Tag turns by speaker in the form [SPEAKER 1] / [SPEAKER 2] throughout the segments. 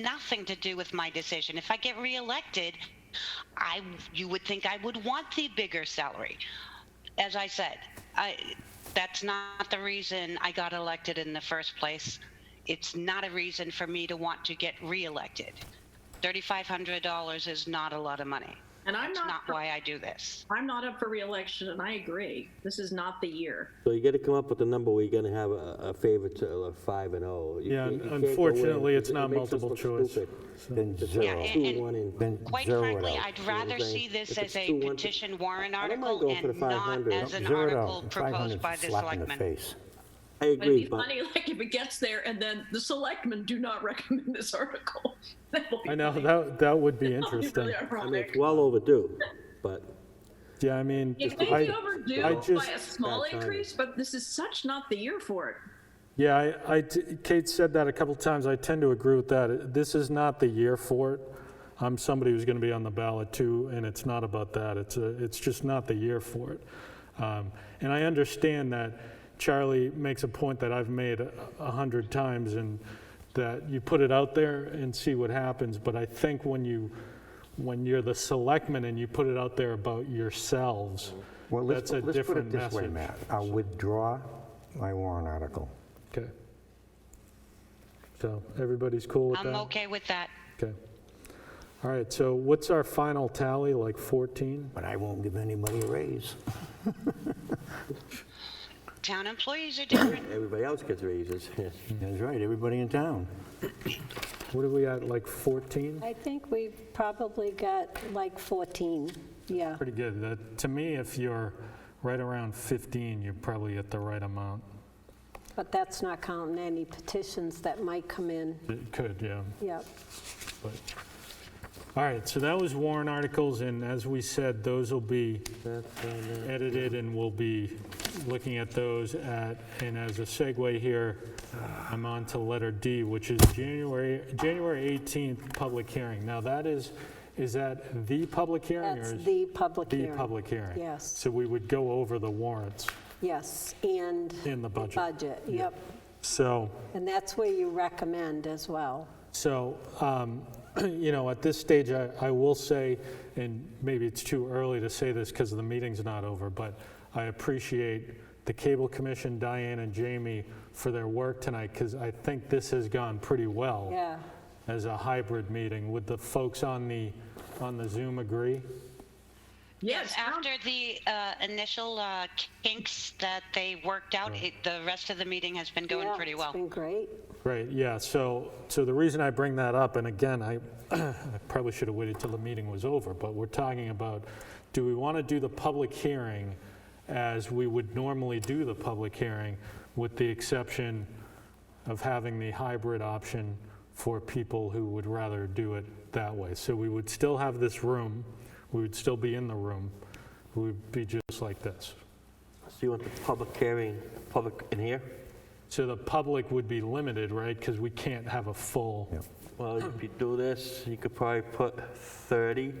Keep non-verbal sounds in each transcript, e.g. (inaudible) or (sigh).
[SPEAKER 1] nothing to do with my decision. If I get reelected, I you would think I would want the bigger salary. As I said, I that's not the reason I got elected in the first place. It's not a reason for me to want to get reelected. Thirty-five hundred dollars is not a lot of money.
[SPEAKER 2] And I'm
[SPEAKER 1] That's
[SPEAKER 2] not
[SPEAKER 1] not
[SPEAKER 2] for-
[SPEAKER 1] why I do this.
[SPEAKER 2] I'm not up for reelection, and I agree. This is not the year.
[SPEAKER 3] So you got to come up with a number where you're going to have a a favorite to a five and oh. You
[SPEAKER 4] Yeah,
[SPEAKER 3] can't- you can't go in
[SPEAKER 4] unfortunately, it's
[SPEAKER 3] because it
[SPEAKER 4] not
[SPEAKER 3] makes us
[SPEAKER 4] multiple
[SPEAKER 3] look
[SPEAKER 4] choice.
[SPEAKER 3] stupid.
[SPEAKER 5] Then
[SPEAKER 1] Yeah,
[SPEAKER 5] zero.
[SPEAKER 3] Two,
[SPEAKER 1] and-
[SPEAKER 3] one, and-
[SPEAKER 5] Then
[SPEAKER 1] Quite
[SPEAKER 5] zero it
[SPEAKER 1] frankly,
[SPEAKER 5] out.
[SPEAKER 1] I'd
[SPEAKER 3] know what I'm
[SPEAKER 1] rather
[SPEAKER 3] saying?
[SPEAKER 1] see this
[SPEAKER 3] If
[SPEAKER 1] as
[SPEAKER 3] it's
[SPEAKER 1] a
[SPEAKER 3] two, one-
[SPEAKER 1] petition warrant
[SPEAKER 3] I don't mind
[SPEAKER 1] article
[SPEAKER 3] going for
[SPEAKER 1] and
[SPEAKER 3] the
[SPEAKER 1] not
[SPEAKER 3] 500.
[SPEAKER 1] as an
[SPEAKER 5] Zero it out.
[SPEAKER 1] article proposed
[SPEAKER 5] 500
[SPEAKER 1] by the
[SPEAKER 5] slap in the
[SPEAKER 1] selectmen.
[SPEAKER 5] face.
[SPEAKER 3] I
[SPEAKER 2] But it'd
[SPEAKER 3] agree,
[SPEAKER 2] be
[SPEAKER 3] but
[SPEAKER 2] funny, (laughs) like if it gets there, and then the selectmen do not (laughs) recommend this article. (laughs) That will be
[SPEAKER 4] I know,
[SPEAKER 2] funny.
[SPEAKER 4] that, that would
[SPEAKER 2] (laughs)
[SPEAKER 4] be
[SPEAKER 2] That would be
[SPEAKER 4] interesting.
[SPEAKER 2] really
[SPEAKER 3] I mean, it's
[SPEAKER 2] ironic.
[SPEAKER 3] well overdue, but
[SPEAKER 4] Yeah, I mean,
[SPEAKER 2] It may be
[SPEAKER 4] I, I
[SPEAKER 2] overdue by
[SPEAKER 4] just-
[SPEAKER 2] a small
[SPEAKER 3] Bad timing.
[SPEAKER 2] increase, but this is such not the year for it.
[SPEAKER 4] yeah, I- I t- Kate said that a couple times, I tend to agree with that. This is not the year for it. I'm somebody who's going to be on the ballot too, and it's not about that. It's, a- it's just not the year for it. Um, And I understand that Charlie makes a point that I've made a a hundred times, and that you put it out there and see what happens, but I think when you, when you're the selectman and you put it out there about yourselves,
[SPEAKER 5] Well, let's,
[SPEAKER 4] that's a
[SPEAKER 5] let's put
[SPEAKER 4] different
[SPEAKER 5] it this way,
[SPEAKER 4] message.
[SPEAKER 5] Matt. I'll withdraw my warrant article.
[SPEAKER 4] Okay. So everybody's cool with that?
[SPEAKER 1] I'm okay with that.
[SPEAKER 4] Okay. All right, so what's our final tally, like 14?
[SPEAKER 5] But I won't give anybody a raise.
[SPEAKER 1] Town employees are different.
[SPEAKER 4] (coughs)
[SPEAKER 3] everybody else gets raises. (laughs)
[SPEAKER 4] Hmm.
[SPEAKER 5] That's right, everybody in town.
[SPEAKER 4] What are we at, like 14?
[SPEAKER 6] I think we've probably got like 14, yeah.
[SPEAKER 4] Pretty good. That- To me, if you're right around 15, you're probably at the right amount.
[SPEAKER 6] But that's not counting any petitions that might come in,
[SPEAKER 4] It could, yeah.
[SPEAKER 6] yep.
[SPEAKER 4] but- All right, so that was warrant articles, and as we said, those will be edited, and we'll be looking at those at, and as a segue here, I'm on to letter D, which is January, January 18th, public hearing. Now, that is, is that the public hearing? or
[SPEAKER 6] That's
[SPEAKER 4] is-
[SPEAKER 6] the public
[SPEAKER 4] The
[SPEAKER 6] hearing.
[SPEAKER 4] public hearing?
[SPEAKER 6] Yes.
[SPEAKER 4] So we would go over the warrants
[SPEAKER 6] Yes, and
[SPEAKER 4] in the budget.
[SPEAKER 6] budget, yep.
[SPEAKER 4] So,
[SPEAKER 6] And that's where you recommend as well.
[SPEAKER 4] So, um, (clears throat) you know, at this stage, I I will say, and maybe it's too early to say this because the meeting's not over, but I appreciate the Cable Commission, Diane and Jamie, for their work tonight because I think this has gone pretty well
[SPEAKER 6] Yeah,
[SPEAKER 4] as a hybrid meeting. Would the folks on the, on the Zoom agree?
[SPEAKER 2] Yes,
[SPEAKER 1] After the uh, initial uh, kinks that they worked out, it, the rest of the meeting has been going
[SPEAKER 6] Yeah,
[SPEAKER 1] pretty
[SPEAKER 6] It's
[SPEAKER 1] well.
[SPEAKER 6] been great.
[SPEAKER 4] Right, yeah, so, so the reason I bring that up, and again, I (clears throat) I probably should have waited till the meeting was over, but we're talking about, do we want to do the public hearing as we would normally do the public hearing, with the exception of having the hybrid option for people who would rather do it that way? So we would still have this room, we would still be in the room, we would be just like this.
[SPEAKER 3] So you want the public hearing, public in here?
[SPEAKER 4] So the public would be limited, right, because we can't have a full.
[SPEAKER 3] Well, if you do this, you could probably put 30,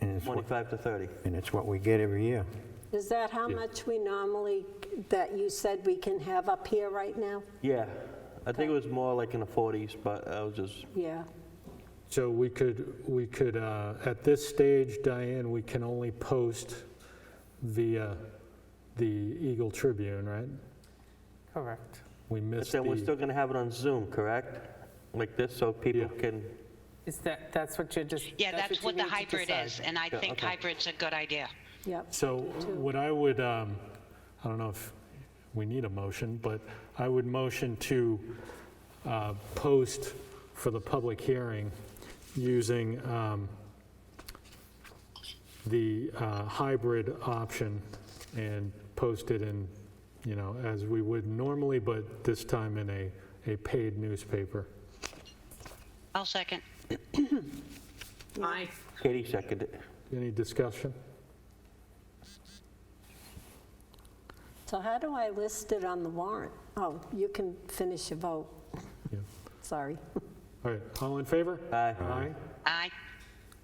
[SPEAKER 5] And it's what,
[SPEAKER 3] 25 to 30.
[SPEAKER 5] and it's what we get every year.
[SPEAKER 6] Is that how much we normally, that you said we can have up here right now?
[SPEAKER 3] Yeah, I think it was more like in the 40s, but I was just,
[SPEAKER 6] Yeah,
[SPEAKER 4] So we could, we could, uh, at this stage, Diane, we can only post via the Eagle Tribune, right?
[SPEAKER 7] Correct.
[SPEAKER 4] We
[SPEAKER 3] but
[SPEAKER 4] missed
[SPEAKER 3] then we're still
[SPEAKER 4] the,
[SPEAKER 3] going to have it on Zoom, correct? Like this, so people
[SPEAKER 4] Yeah.
[SPEAKER 3] can,
[SPEAKER 7] Is that, that's what you're just.
[SPEAKER 1] Yeah, that's
[SPEAKER 7] you
[SPEAKER 1] what the
[SPEAKER 7] need to
[SPEAKER 1] hybrid
[SPEAKER 7] decide.
[SPEAKER 1] is, and I think hybrid's a good idea.
[SPEAKER 6] yep.
[SPEAKER 4] so what I would, um, I don't know if we need a motion, but I would motion to uh, post for the public hearing using um, the uh, hybrid option and post it in, you know, as we would normally, but this time in a, a paid newspaper.
[SPEAKER 1] I'll second.
[SPEAKER 2] I,
[SPEAKER 3] Katie seconded it.
[SPEAKER 4] Any discussion?
[SPEAKER 6] So how do I list it on the warrant? Oh, you can finish your vote,
[SPEAKER 4] Yeah.
[SPEAKER 6] sorry.
[SPEAKER 4] All right, all in favor?
[SPEAKER 3] Aye.
[SPEAKER 4] Aye?
[SPEAKER 1] Aye.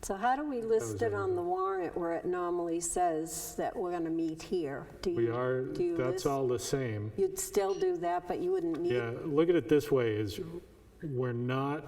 [SPEAKER 6] So how do we list it on the warrant where it normally says that we're going to meet here? Do
[SPEAKER 4] We
[SPEAKER 6] you-
[SPEAKER 4] are,
[SPEAKER 6] do you
[SPEAKER 4] that's
[SPEAKER 6] list-
[SPEAKER 4] all the same.
[SPEAKER 6] You'd still do that, but you wouldn't need,
[SPEAKER 4] Yeah, look at it this way, is we're not